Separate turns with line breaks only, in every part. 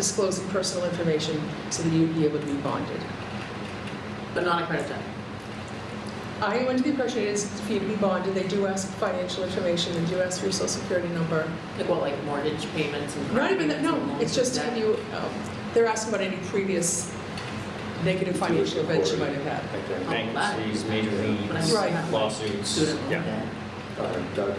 disclosing personal information so that you'd be able to be bonded.
But not a credit check.
I am under the impression it is for you to be bonded, they do ask financial information, they do ask for your social security number.
Like what, like mortgage payments and.
Not even that,
credit
no,
payments and Oh,
it's just
loans
have
and
you, um, they're asking about any previous negative financial events you might have had.
Like the
Oh, that-
bankruptcies, major
stuff. But I'm
leagues,
still
Right.
not a
lawsuits.
Student loan
Yeah.
debt.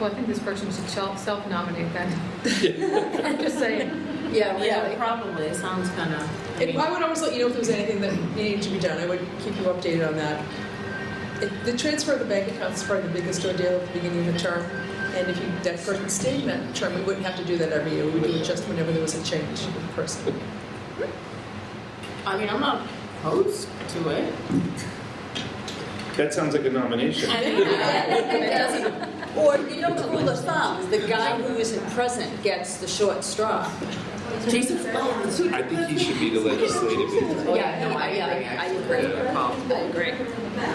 Well, I think this person should self- self-nominate then. I'm just saying.
Yeah,
Yeah, probably, it sounds kind of.
And I would always let you know if there was anything that needed to be done, I would keep you updated on that. It- The transfer of the bank accounts is probably the biggest ordeal at the beginning of the term, and if you, that person stayed in that term, we wouldn't have to do that every year, we would do it just whenever there was a change in the person.
I mean, I'm not opposed to it.
That sounds like a nomination.
It doesn't. Or, you know, the rule of thumb, is the guy who isn't present gets the short straw.
Jason Flowers.
I think he should be the legislative. influence.
Oh, Yeah, no, I- yeah, I- I agree. I agree.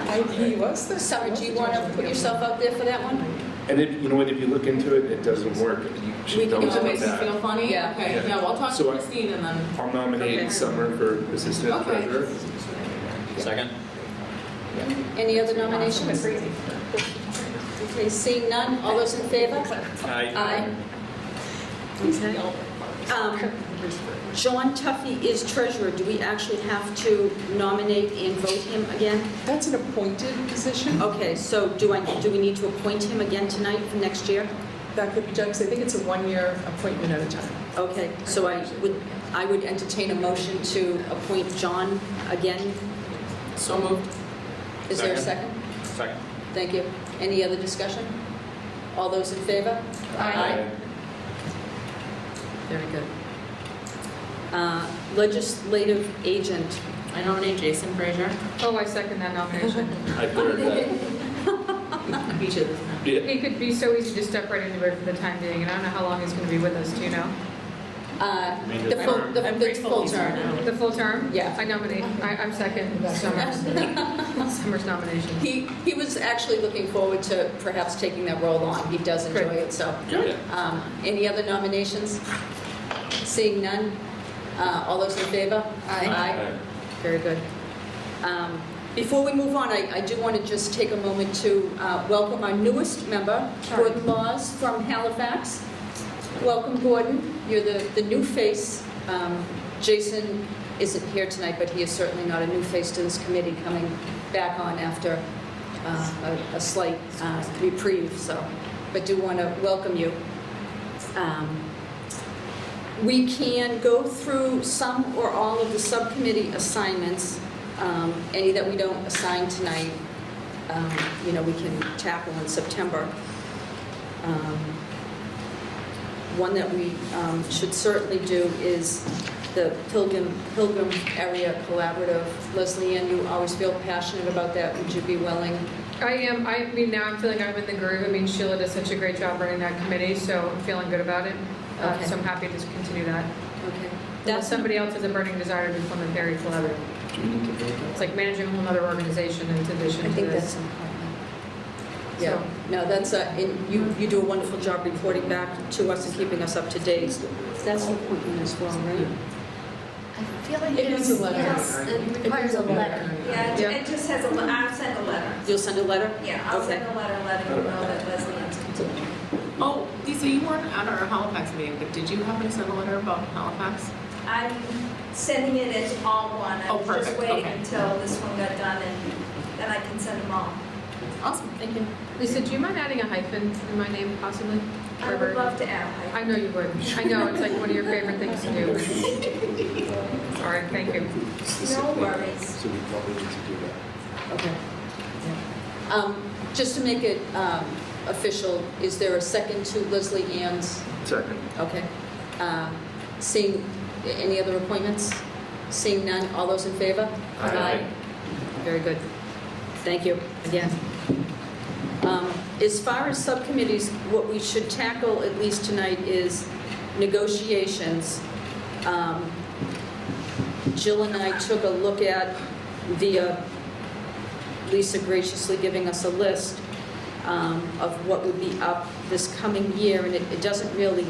I, he was the.
Sarah, do you want to put yourself out there for that one?
And if, you know what, if you look into it, it doesn't work, you
We
should know
can, if it
about
makes you feel
that.
funny,
Yeah.
okay,
Yeah.
yeah, well, I'll talk to
So I-
Christine and then.
I'll
Okay.
nominate Summer for assistant
Okay.
treasurer.
Second?
Any other nominations? Okay, seeing none, all those in favor? Aye. Um, John Tuffy is treasurer, do we actually have to nominate and vote him again?
That's an appointed position,
Okay, so do I, do we need to appoint him again tonight for next year?
that could be done, because I think it's a one-year appointment at a time.
Okay, so I would, I would entertain a motion to appoint John again.
So moved.
Is there a second?
Second.
Thank you. Any other discussion? All those in favor?
Very good.
Uh, Legislative agent,
I nominate Jason Frazier.
Oh, I second that nomination.
I third that.
I beat you this time.
He could be so easy to step right into it for the time being, and I don't know how long he's going to be with us, do you know?
uh, the
I'm-
full, the-
I'm
the
grateful
full
he's here
term.
now.
The full term?
Yeah.
I nominate, I- I'm second, Summers. Summers nomination.
He, he was actually looking forward to perhaps taking that role on. He does enjoy
Great.
it, so.
Yeah.
Um, Any other nominations? Seeing none, Uh, all those in favor? Aye. Very good. Um, Before we move on, I I do want to just take a moment to uh, welcome our newest member, Gordon Laws from Halifax. Welcome, Gordon. You're the the new face. Um, Jason isn't here tonight, but he is certainly not a new face to this committee, coming back on after uh, a a slight uh, reprieve, so, but do want to welcome you. Um, we can go through some or all of the subcommittee assignments, um, any that we don't assign tonight, um, you know, we can tackle in September. Um, One that we um, should certainly do is the Pilgrim, Pilgrim Area Collaborative. Leslie Ann, you always feel passionate about that, would you be willing?
I am, I mean, now I'm feeling I'm in the groove. I mean, Sheila does such a great job running that committee, so I'm feeling good about it. Uh,
Okay.
So I'm happy to continue that.
Okay.
Unless
That's,
somebody else has a burning desire to become a very collaborative. It's like managing a whole other organization in addition to
I
this.
think that's important. Yeah,
So-
no, that's, a- and you, you do a wonderful job reporting back to us and keeping us up to date. That's an appointment as well, right?
I feel like
It needs a letter.
Yes, it requires a letter.
Yeah,
Yeah.
it- it just has a, le- I'll send a letter.
You'll send a letter?
Yeah, I'll
Okay.
send a letter letting you know that Leslie is continuing.
Oh, Lisa, you weren't at our Halifax meeting, but did you happen to send a letter about Halifax?
I'm sending it as all one. I
Oh,
was just
perfect,
waiting
okay.
until this one got done and then I can send them all.
Awesome, thank you.
Lisa, do you mind adding a hyphen in my name possibly?
I would
Herbert?
love to add.
I know you would. I know, it's like one of your favorite things to do. All right, thank you.
No worries.
So we probably need to do that.
Okay. Um, Just to make it um, official, is there a second to Leslie Ann's?
Second.
Okay. Uh, Seeing, any other appointments? Seeing none, all those in favor?
Aye.
Very good. Thank you again. Um, As far as subcommittees, what we should tackle, at least tonight, is negotiations. Um, Jill and I took a look at via Lisa graciously giving us a list um, of what would be up this coming year, and it it doesn't really